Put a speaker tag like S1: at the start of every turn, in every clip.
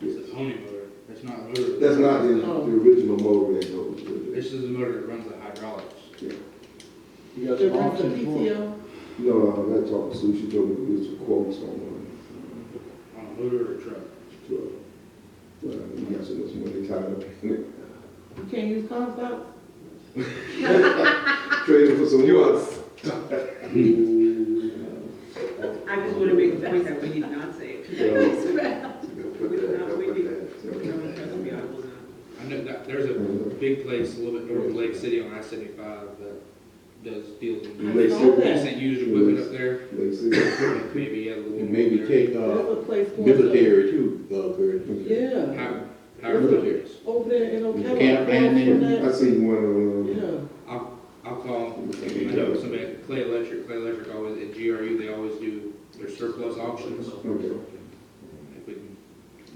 S1: It's the pony motor, it's not motor.
S2: That's not the,
S3: Oh.
S2: the original motor that goes with it.
S1: This is the motor that runs the hydraulics.
S4: You got
S5: The
S4: some
S5: rest of
S4: options for it.
S5: PTO,
S2: No, no, I'm not talking Sue, she told me to get some quotes on one.
S1: On a motor or a truck.
S2: So, Well, uh, you got so much money tied up in it.
S5: you can't use Comstock?
S4: Uh,
S2: Trade it for some yours.
S3: I just want to make the point that we did not say it. We did not, we did, we don't trust me, I will not.
S1: I know that, there's a big place a little bit north of Lake City on I seventy-five that does deals in.
S2: Lake
S5: know that.
S1: Decent used equipment up there,
S2: Lake City.
S1: maybe has a little.
S4: And maybe
S1: more there.
S4: take,
S5: There's
S4: uh,
S5: a place called.
S4: military too, uh, Curtis.
S5: Yeah,
S1: How, however it is.
S5: over there in Ocala.
S4: Camp Van
S5: across from
S4: Ness.
S2: I
S5: that-
S2: seen one uh, on,
S5: Yeah.
S1: I'll, I'll call, I know somebody, at Clay Electric, Clay Electric always, at GRU, they always do their surplus auctions.
S2: uh, okay.
S1: If we can-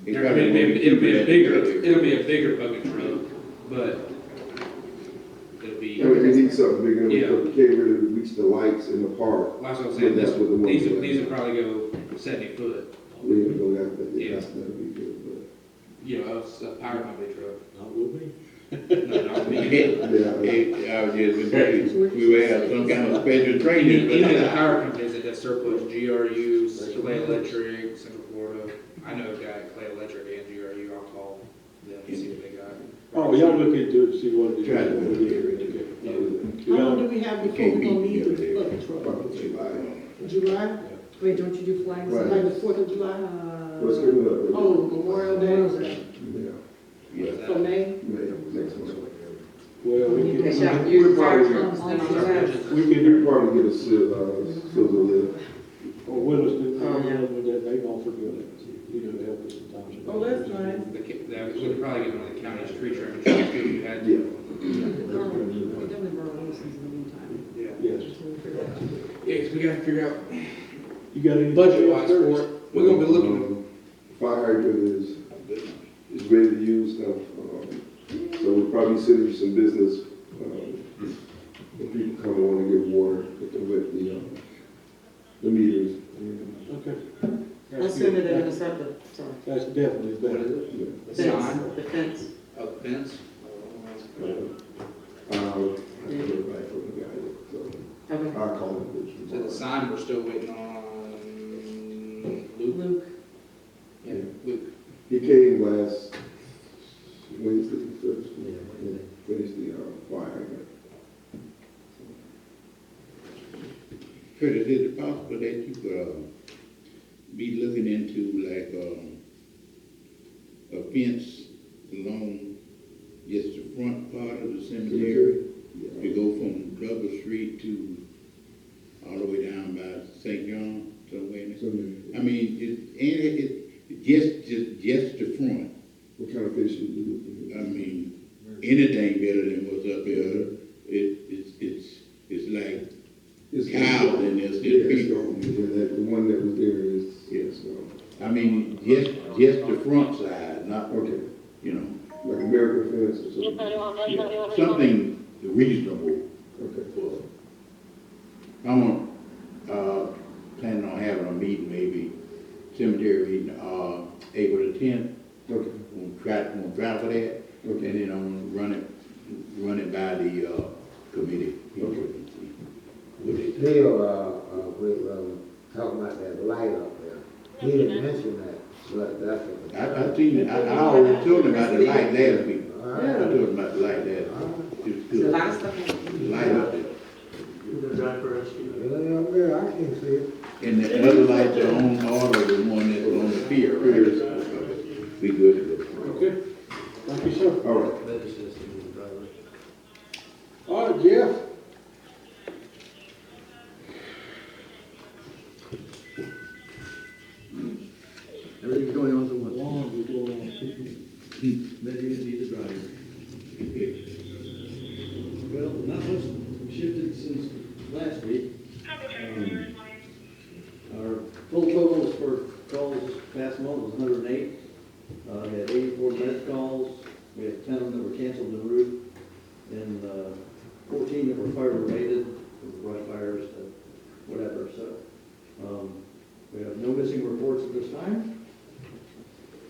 S4: They
S1: It'll be,
S4: probably won't
S1: it'll be a
S4: keep
S1: bigger,
S4: that.
S1: it'll be a bigger bucket truck, but it'll be,
S2: I mean, we need something bigger, we
S1: Yeah.
S2: can't really reach the lights in the park.
S1: last I'm saying,
S2: That's
S1: this,
S2: what the one-
S1: these, will- these will probably go seventy foot,
S2: We didn't go that, but
S1: Yeah.
S2: that's, that'd be good,
S1: you know, it's a power company truck.
S4: Not with me.
S1: No, not me. Even
S2: but, yeah, I-
S4: Yeah, I was just, we, we would have some kind of special training, but
S1: even the power companies that have surplus, GRU, Clay Electric, Central Florida, I know a guy at Clay Electric and GRU, I'll call them and see what they got.
S6: Oh, y'all look into it, see what it is.
S4: Try to do
S2: I would-
S6: Yeah.
S5: How long
S6: Y'all-
S5: do we have before
S4: can't
S5: we gonna
S4: be
S5: need the
S4: military.
S5: bucket truck?
S2: Probably July.
S5: July,
S3: Wait, don't you do flags?
S2: Right.
S5: like the Fourth of July?
S2: What's
S3: Uh,
S2: coming up?
S5: Oh, Memorial Day,
S2: Yeah,
S1: Is
S5: so
S1: that-
S5: May,
S2: May, next month.
S6: Well, we
S3: They
S6: can,
S3: shall use fire cones
S5: On
S3: then on
S5: the
S3: the
S5: left.
S3: road.
S6: we can,
S2: You probably get a sil, uh, silver lid.
S6: or Williston,
S5: Oh,
S6: I don't know, but they gonna forget it, you know, help us sometimes.
S5: oh, that's nice.
S1: The, ca- that would probably get one of the county's tree trimming trucks, too, if you had.
S2: Yeah.
S3: We definitely borrow Wilson's in the meantime.
S1: Yeah.
S6: Yes,
S3: So we'll figure it out.
S1: Yeah, 'cause we gotta figure out
S6: you got any?
S1: budget wise for it. We're gonna be looking
S2: Um, Fire hydrant is, is ready to use now, um, so we'll probably send you some business, um, if people come on and get water with the, with the, um, the meters.
S6: Okay.
S5: I
S6: That's
S5: send it in
S6: good.
S5: a separate, sorry.
S6: That's definitely better.
S2: Yeah.
S1: Sign.
S5: Fence, the fence.
S1: Oh, fence?
S2: uh, Um, I can get back from the guy, so
S5: Okay.
S2: I'll call him.
S1: So the sign, we're still waiting on Luke?
S5: Luke,
S1: Yeah, Luke.
S2: He came last Wednesday, Thursday, and finished the, um, fire hydrant.
S4: Curtis, is it possible that you could, uh, be looking into like, um, a fence along just the front part of the cemetery?
S2: Yeah.
S4: You go from Glover Street to all the way down by St. John, somewhere in there?
S2: So, man,
S4: I mean, it, and it, it, just, just, just the front.
S2: what kind of fish you do?
S1: Um,
S4: I mean, anything better than what's up there. It, it's, it's, it's like
S2: It's-
S4: cows in this,
S2: Yeah,
S4: it's
S2: it's
S4: people.
S2: gone. Yeah, that, the one that was there is, yes,
S4: I mean, just, just the front side, not,
S2: okay,
S4: you know,
S2: like American fence or something,
S4: yeah, something reasonable.
S2: okay.
S4: for- I want, uh, planning on having a meeting, maybe cemetery meeting, uh, April the tenth.
S2: Okay,
S4: We'll try, we'll try for that, and
S2: okay,
S4: then I'm gonna run it, run it by the, uh, committee.
S2: Okay.
S4: What they think.
S7: Bill, uh, uh, we, um, talking about that light up there. He didn't mention that, but that's. what-
S4: I, I seen it, I, I already told him about the light last week.
S7: All
S4: I
S7: right.
S4: told him about the light
S7: All
S4: last
S7: right.
S4: week. It's
S3: There's a
S4: good.
S3: lot of stuff.
S4: Light up there.
S7: Yeah, up there, I can see it.
S4: And the other light that on order, the one that's on the pier, right? We good to go.
S6: Okay, thank you, sir.
S2: all right.
S6: All right, Jeff.
S7: Everything's going on so much.
S6: Long is going on.
S8: That is either driver. Well, not much shifted since last week. Um, Our full totals for calls past month was hundred and eight. Uh, we had eighty-four missed calls, we had ten that were canceled en route, and, uh, fourteen that were fire related, brush fires, uh, whatever, so. Um, we have no missing reports at this time.